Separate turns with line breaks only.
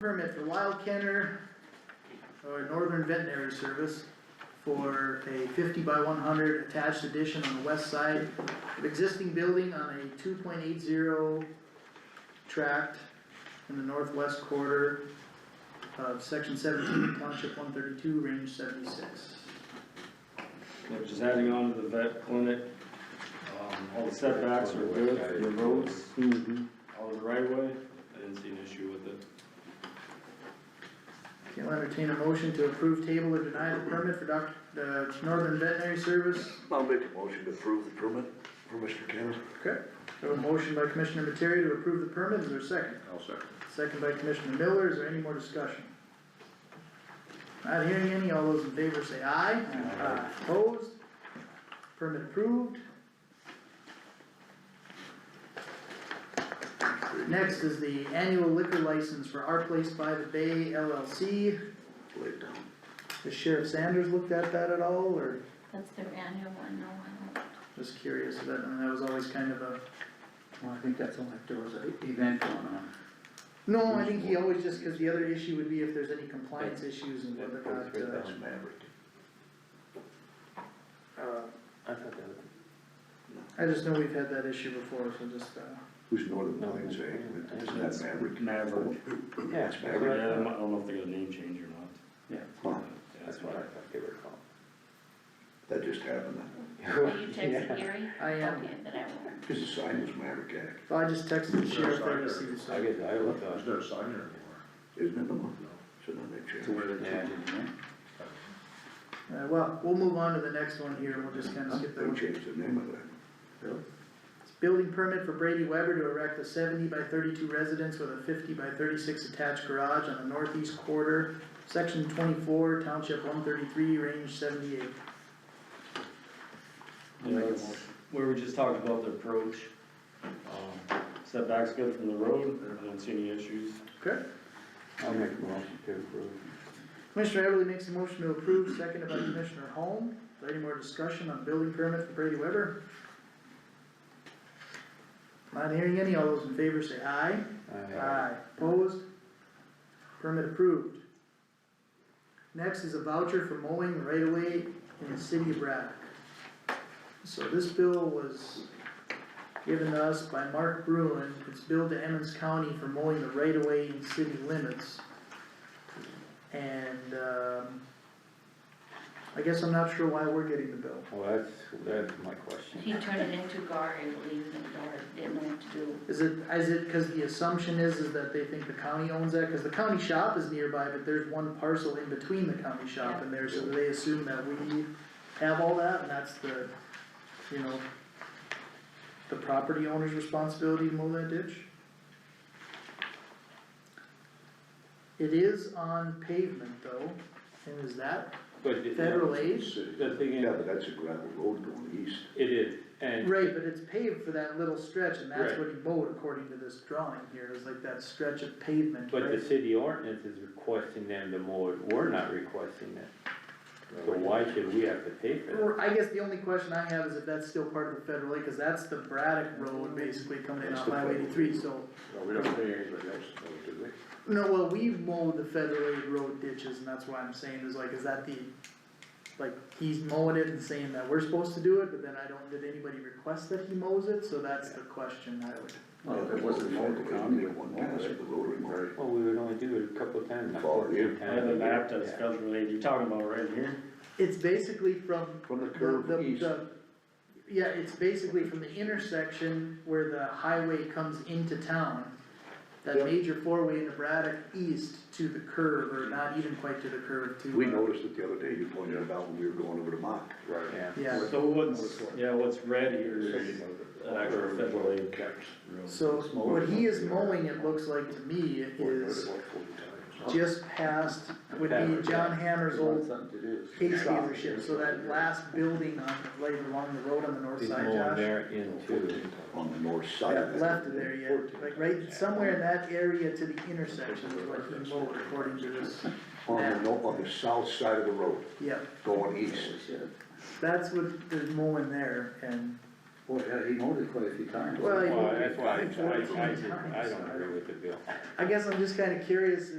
permit for Wild Kenner or Northern Veterinary Service for a fifty by one hundred attached addition on the west side of existing building on a two point eight zero tract in the northwest quarter of section seventeen, township one thirty-two, range seventy-six.
Which is adding on to the vet clinic. Um, All the setbacks are good, for the roads, Mm-hmm. all of the right of way. I didn't see an issue with it.
Okay, I'll entertain a motion to approve table or deny the permit for Doc, the Northern Veterinary Service.
I'll make a motion to approve the permit for Mr. Kenner.
Okay. So a motion by Commissioner Materi to approve the permit, is there a second?
I'll second.
Second by Commissioner Miller, is there any more discussion? Not hearing any, all those in favor say aye. Aye. Opposed? Permit approved. Next is the annual liquor license for Our Place by the Bay LLC.
Lay it down.
Has Sheriff Sanders looked at that at all, or
That's their annual one, no one.
just curious, that, and that was always kind of a.
Well, I think that's only if there was an event going on.
No, I think he always just, cause the other issue would be if there's any compliance issues and whether or not, uh,
That's Maverick.
Uh, I just know we've had that issue before, so just, uh,
Who's Northern Plains, eh? Isn't that Maverick?
Maverick.
Yeah.
That's
Yeah, I
Maverick.
don't know- I don't know if they got a name change or not.
Yeah.
Huh,
Yeah, That's why.
thought they were called.
That just happened.
Are you texting Gary?
I am.
Okay, but I won't.
Cause the sign was Maverick Act,
well, I just texted the sheriff there to see, so.
guess I looked on.
There's no sign there anymore.
isn't it? No. Shouldn't that change?
Yeah.
Uh, well, we'll move on to the next one here, and we'll just kinda skip that
They
one.
changed the name of that.
It's Building permit for Brady Weber to erect a seventy by thirty-two residence with a fifty by thirty-six attached garage on the northeast quarter, section twenty-four, township one thirty-three, range seventy-eight.
Yeah, it's- We were just talking about the approach. Um, Setback's good from the road, I don't see any issues.
Okay.
I'll make a motion to approve.
Commissioner Everly makes a motion to approve, seconded by Commissioner Holm. Is there any more discussion on building permit for Brady Weber? Not hearing any, all those in favor say aye.
Uh,
Opposed? Permit approved. Next is a voucher for mowing right away in the city of Braddock. So this bill was given to us by Mark Bruin, it's billed to Emmons County for mowing the right of way in city limits. And, um, I guess I'm not sure why we're getting the bill.
Well, that's, that's my question.
He turned it into Gar, I believe, and Gar didn't know what to do.
Is it, is it, cause the assumption is, is that they think the county owns that, cause the county shop is nearby, but there's one parcel in between the county shop and there, so they assume that we have all that, and that's the, you know, the property owner's responsibility to mow that ditch? It is on pavement though, and is that
But it-
federal aid?
the thing
Yeah,
is,
but that's a gravel road going east.
it is, and
Right, but it's paved for that little stretch, and that's
Right.
what he mowed according to this drawing here, is like that stretch of pavement, right?
but the city ordinance is requesting them to mow it, we're not requesting it. So why should we have to pay for that?
Or, I guess the only question I have is if that's still part of the federal aid, cause that's the Braddock Road basically coming in
That's
off
the
Highway
federal
eighty-three,
road.
so.
No, we don't pay anybody else, though, do we?
No, well, we mowed the federal aid road ditches, and that's why I'm saying is like, is that the, like, he's mowing it and saying that we're supposed to do it, but then I don't, did anybody request that he mows it, so that's the question I would.
Well, if it wasn't mowed, the county would
One
mow
pass
it.
of the rotary mower.
Well, we would only do it a couple of times, not
Follow you.
fourteen times.
I have a map that's
Yeah.
federal aid, you're talking about right here.
It's basically from
From the
The,
curve
the,
east.
the, yeah, it's basically from the intersection where the highway comes into town. That
Yep.
major four-way into Braddock east to the curve, or not even quite to the curve, to.
We
uh,
noticed it the other day, you pointed it out when we were going over to Mock.
Right.
Yeah.
Yeah,
So what's, yeah, what's red here
So
is
you know that-
an actual federal aid.
so what he is mowing, it looks like to me,
We're going
is
to work 40 times.
just past, would be John Hammer's old
Something to do.
case dealership, so that last building on, right along the road on the north
He's
side,
mowing
Josh.
there into,
On the north side of
Yeah,
it.
left of there yet, like right somewhere in that area to the intersection is what he mowed according to this.
On the, no- on the south side of the road,
Yeah,
going east.
that's what the mowing there and,
Boy, yeah, he mowed it quite a few times.
well, he
well,
mowed
that's
it
why I, I, I,
fourteen
didn't- I
times.
don't agree with the bill.
I guess I'm just kinda curious